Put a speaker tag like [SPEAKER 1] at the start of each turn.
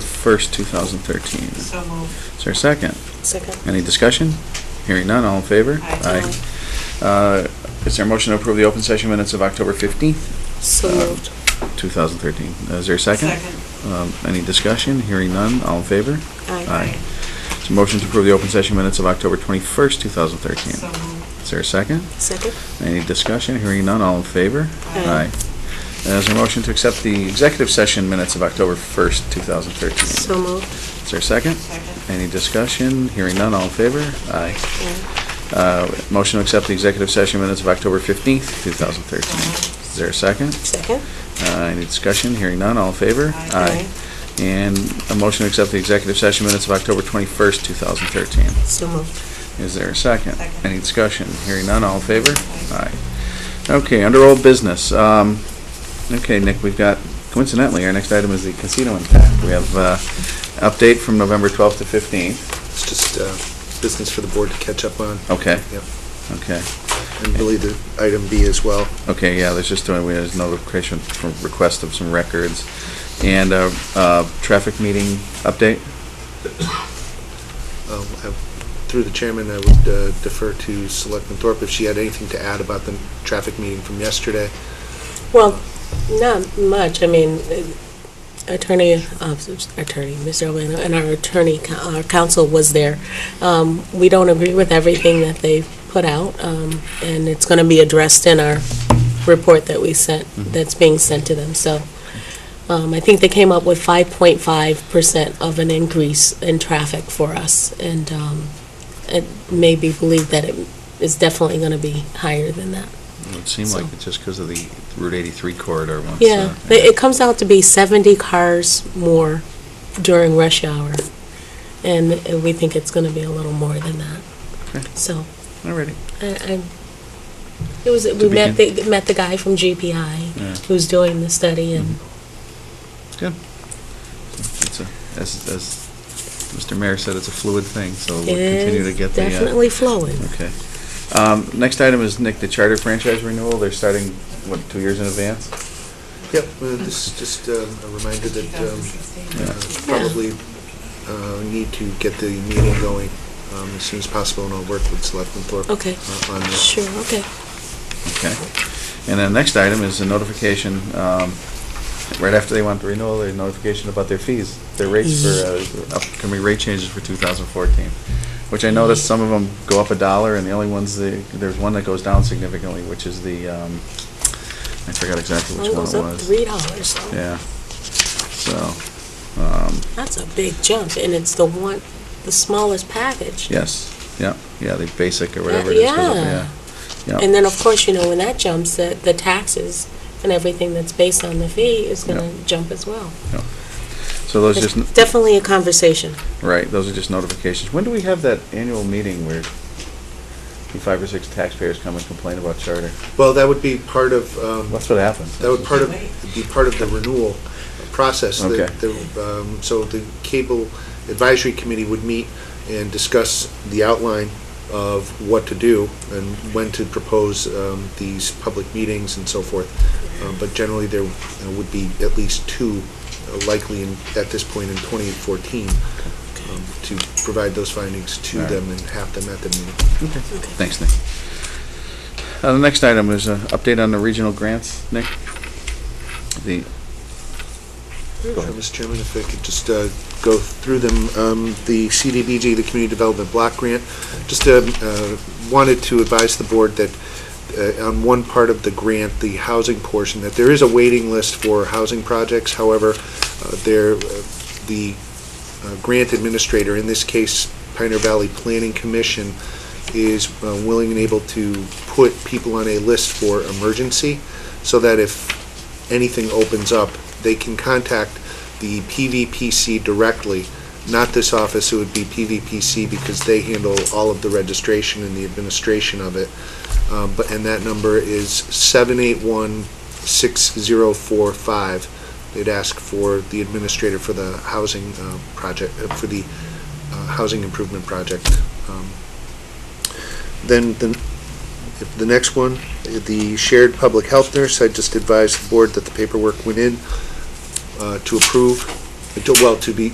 [SPEAKER 1] for first, 2013. Is
[SPEAKER 2] So moved.
[SPEAKER 1] there a second?
[SPEAKER 3] Second.
[SPEAKER 1] Any discussion? Hearing none, all in favor?
[SPEAKER 2] Aye.
[SPEAKER 1] Aye. Uh, Is there a motion to approve the open session minutes of October Uh, 15th,
[SPEAKER 3] So moved.
[SPEAKER 1] 2013? Uh, Is there a second?
[SPEAKER 2] Second.
[SPEAKER 1] Um, Any discussion? Hearing none, all in favor?
[SPEAKER 3] Aye.
[SPEAKER 1] Is there a motion to approve the open session minutes of October 21st, 2013?
[SPEAKER 2] So moved.
[SPEAKER 1] Is there a second?
[SPEAKER 3] Second.
[SPEAKER 1] Any discussion? Hearing none, all in favor?
[SPEAKER 3] Aye.
[SPEAKER 1] And Is there a motion to accept the executive session minutes of October 1st, 2013?
[SPEAKER 3] So moved.
[SPEAKER 1] Is there a second?
[SPEAKER 2] Second.
[SPEAKER 1] Any discussion? Hearing none, all in favor? Aye.
[SPEAKER 3] Aye.
[SPEAKER 1] Uh, Motion to accept the executive session minutes of October 15th,
[SPEAKER 2] So
[SPEAKER 1] 2013.
[SPEAKER 2] moved.
[SPEAKER 1] Is there a second?
[SPEAKER 3] Second.
[SPEAKER 1] Uh, Any discussion? Hearing none, all in favor?
[SPEAKER 2] Aye.
[SPEAKER 1] And a motion to accept the executive session minutes of October 21st, 2013.
[SPEAKER 3] So moved.
[SPEAKER 1] Is there a second?
[SPEAKER 2] Second.
[SPEAKER 1] Any discussion? Hearing none, all in favor?
[SPEAKER 2] Aye.
[SPEAKER 1] Aye. Okay, under old business, um, okay, Nick, we've got, coincidentally, our next item is the casino impact. We have, uh, update from November 12th to 15th.
[SPEAKER 4] It's just uh, business for the board to catch up on.
[SPEAKER 1] Okay.
[SPEAKER 4] Yep.
[SPEAKER 1] Okay,
[SPEAKER 4] And really the item B as well.
[SPEAKER 1] okay, yeah, there's just, uh, we there's notification from request of some records. And, uh, uh, traffic meeting update?
[SPEAKER 4] Um, I- Through the chairman, I would uh, defer to Selectman Thorpe if she had anything to add about the traffic meeting from yesterday.
[SPEAKER 3] Well, not much. I mean, uh, attorney, uh, attorney, Mr. Albano, and our attorney, co- our counsel was there. Um, We don't agree with everything that they put out, um, and it's going to be addressed in our report that we sent, that's being sent to them. So um, I think they came up with 5.5% of an increase in traffic for us, and um, it may be believed that it is definitely going to be higher than that.
[SPEAKER 1] It seemed like
[SPEAKER 3] So-
[SPEAKER 1] it's just because of the Route 83 corridor once.
[SPEAKER 3] Yeah,
[SPEAKER 1] uh,
[SPEAKER 3] they- it comes out to be 70 cars more during rush hour, and uh, we think it's going to be a little more than that.
[SPEAKER 1] Okay.
[SPEAKER 3] So,
[SPEAKER 1] Alrighty.
[SPEAKER 3] I, I, it was, we
[SPEAKER 1] To
[SPEAKER 3] met,
[SPEAKER 1] begin.
[SPEAKER 3] the met the guy from
[SPEAKER 1] Yeah. Mm-hmm.
[SPEAKER 3] GPI who's doing the study, and
[SPEAKER 1] Good. It's a, as, as Mr. Mayor said, it's a fluid thing, so we'll
[SPEAKER 3] it
[SPEAKER 1] continue to
[SPEAKER 3] is
[SPEAKER 1] get the. uh,
[SPEAKER 3] definitely flowing.
[SPEAKER 1] Okay. Um, next item is, Nick, the charter franchise renewal. They're starting, what, two years in advance?
[SPEAKER 4] Yep, uh, this is just um, a reminder that um,
[SPEAKER 2] 2016.
[SPEAKER 1] Yeah.
[SPEAKER 4] uh, probably uh, need to get the meeting going um, as soon as possible, and I'll work with Selectman Thorpe
[SPEAKER 3] Okay.
[SPEAKER 4] uh, on this.
[SPEAKER 3] Sure, okay.
[SPEAKER 1] Okay. And then next item is a notification, um, right after they want the renewal, their notification about their fees, their rates for,
[SPEAKER 3] Mm-hmm.
[SPEAKER 1] uh, upcoming rate changes for 2014, which I noticed some of them go up a dollar, and the only ones, that- there's one that goes down significantly, which is the, um, I forgot exactly which
[SPEAKER 3] Mine
[SPEAKER 1] one
[SPEAKER 3] goes
[SPEAKER 1] it
[SPEAKER 3] up
[SPEAKER 1] was.
[SPEAKER 3] Oh, three dollars, so
[SPEAKER 1] Yeah. So, um,
[SPEAKER 3] that's a big jump, and it's the one, the smallest package.
[SPEAKER 1] yes, yeah, yeah, the basic or
[SPEAKER 3] Yeah,
[SPEAKER 1] whatever it is. goes up,
[SPEAKER 3] yeah.
[SPEAKER 1] Yeah.
[SPEAKER 3] And then, of course, you know, when that jumps, the, the taxes and everything that's based on the fee is gonna jump as well.
[SPEAKER 1] So those
[SPEAKER 3] It's
[SPEAKER 1] just, n-
[SPEAKER 3] definitely a conversation.
[SPEAKER 1] Right, those are just notifications. When do we have that annual meeting where the five or six taxpayers come and complain about charter?
[SPEAKER 4] Well, that would be part of um,
[SPEAKER 1] That's what happens.
[SPEAKER 4] That would part of, be part of the renewal process. The-
[SPEAKER 1] Okay.
[SPEAKER 4] the, um, So the Cable Advisory Committee would meet and discuss the outline of what to do and when to propose um, these public meetings and so forth. Uh, But generally, there uh, would be at least two uh, likely in- at this point in 2014 um, to provide those findings to
[SPEAKER 1] All right.
[SPEAKER 4] them and have them at the meeting.
[SPEAKER 1] Okay. Thanks, Nick. Uh, the next item is an update on the regional grants, Nick. The, Go ahead.
[SPEAKER 4] Mr. Chairman, if I could just uh, go through them, Um, the CDBG, the Community Development Block Grant, just um, uh, wanted to advise the board that uh, on one part of the grant, the housing portion, that there is a waiting list for housing projects. However, uh, there, uh, the uh, grant administrator, in this case Pioneer Valley Planning Commission, is uh, willing and able to put people on a list for emergency, so that if anything opens up, they can contact the PVPC directly, not this office, it would be PVPC because they handle all of the registration and the administration of it. Um, But, and that number is 781-6045. They'd ask for the administrator for the housing uh, project, uh, for the uh, housing improvement project. Um, Then, the if the next one, the shared public health nurse, I just advised the board that the paperwork went in uh, to approve well, to be